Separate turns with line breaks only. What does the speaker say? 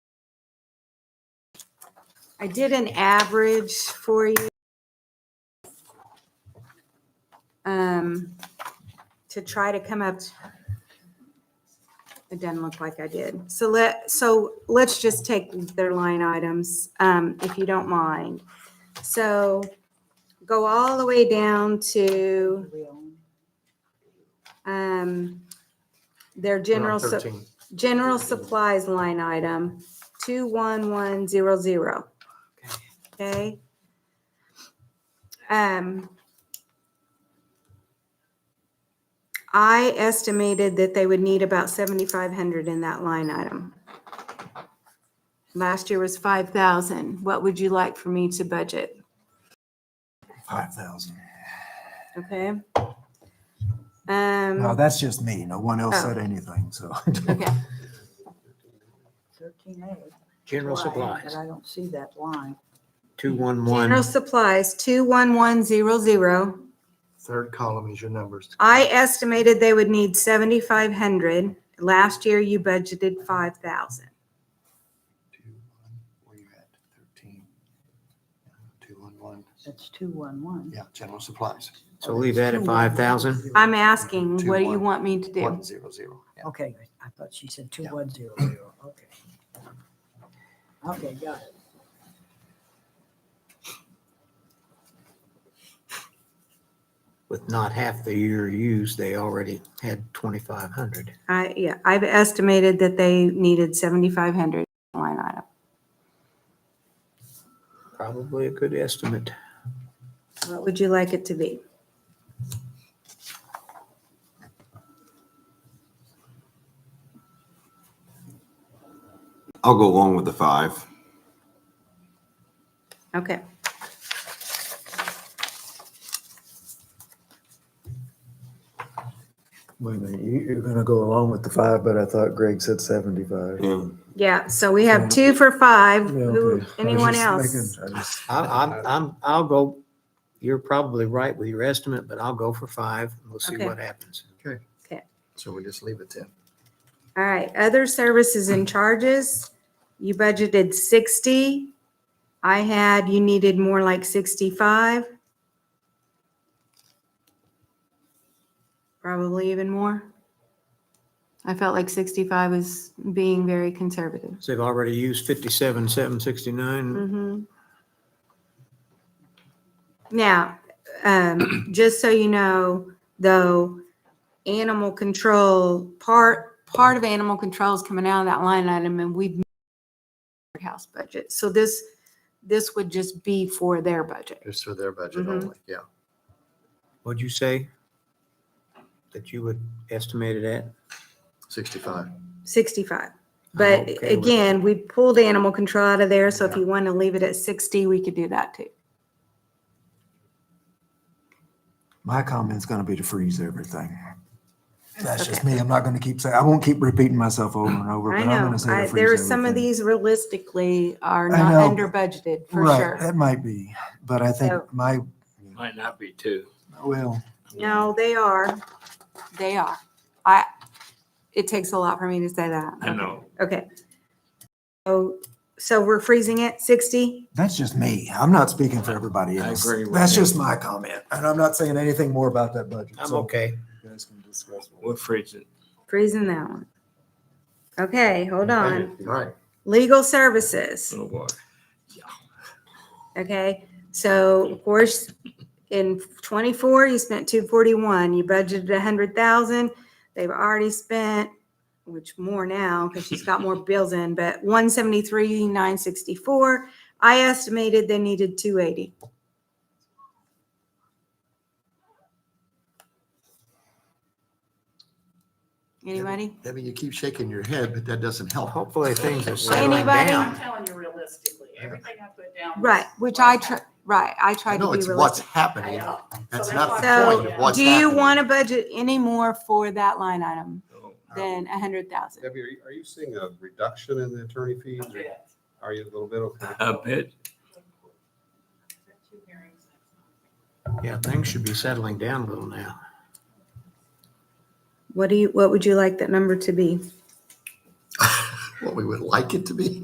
I did an average for you. Um, to try to come up. It doesn't look like I did. So let, so let's just take their line items, um, if you don't mind. So go all the way down to, um, their general. sup-
Thirteen.
General supplies line item, 21100. Okay? Um, I estimated that they would need about 7,500 in that line item. Last year was 5,000. What would you like for me to budget?
Five thousand.
Okay?
No,
Um,
that's just me. No one else
Oh.
said anything, so.
okay.
Thirteen A.
General
But
supplies,
I don't see that line.
two one
General
one,
supplies, 21100.
third column is your numbers.
I estimated they would need seventy-five hundred. Last year you budgeted five thousand.
Where you at, thirteen? Two one one,
That's two one one.
yeah, general supplies. So leave that at five thousand?
I'm asking, what do you
Two, one.
want me to do?
One zero zero.
Okay, I thought she said two one zero zero, okay. Okay, got it.
With not half the year used, they already had twenty-five hundred.
I, yeah, I've estimated that they needed seventy-five hundred line item.
Probably a good estimate.
What would you like it to be?
I'll go along with the five.
Okay.
Wait a minute, you, you're gonna go along with the five, but I thought Greg said seventy-five.
Yeah.
Yeah, so we have two for five.
Yeah,
Who,
okay. I was
anyone
just
else?
making- I just-
I, I'm, I'm, I'll go, you're probably right with your estimate, but I'll go for five, and we'll see
Okay.
what happens. Okay.
Okay.
So we just leave it ten?
All right, other services and charges, you budgeted sixty. I had, you needed more like sixty-five. Probably even more. I felt like sixty-five was being very conservative.
So they've already used fifty-seven, seven sixty-nine.
Mhm. Now, um, just so you know, though, animal control, part, part of animal control is coming out of that line item and we've house budget. So this, this would just be for their budget.
Just for their budget
Mhm.
only, yeah.
What'd you say? That you would estimate it at?
Sixty-five.
65. But
okay with that.
again, we pulled animal control out of there, so if you want to leave it at 60, we could do that too.
My comment's gonna be to freeze everything. That's just
okay.
me. I'm not gonna keep saying, I won't keep repeating myself over and over, but
I
I'm gonna
know,
say
I-
to
there are
freeze
some of
everything.
these realistically are
I
not
know.
under budgeted, for
Right,
sure.
that might be, but I
So-
think my,
Might not be too.
well,
No, they are. They are. I, it takes a lot for me to say that.
I know.
Okay. So, so we're freezing it, 60?
that's just me. I'm not speaking for everybody
I
else.
agree with
That's
you.
just my comment, and I'm not saying anything more about that budget.
I'm
so
okay.
you guys can discuss what-
We'll freeze it.
Freezing that one. Okay, hold on.
Right.
Legal services.
Oh, boy.
Okay, so of course, in twenty-four, you spent two forty-one, you budgeted a hundred thousand. They've already spent, which more now, because she's got more bills in, but one seventy-three, nine sixty-four. I estimated they needed two eighty. Anybody?
Debbie, you keep shaking your head, but that doesn't help.
Hopefully things are settling
Anybody?
down.
I'm telling you realistically, everything I put down. was
Right, which I try, right, I tried to
No,
be
it's
realistic.
what's happening.
I know.
That's
So that's
not the
why-
point of
So,
what's
Do you
happening. Oh,
want to budget any more for that line item than a hundred thousand?
Debbie, are you, are you seeing a reduction in the attorney fees?
a bit.
Are you a little bit okay?
A bit.
Two hearings next month.
Yeah, things should be settling down a little now.
What do you, what would you like that number to be?
What we would like it to be.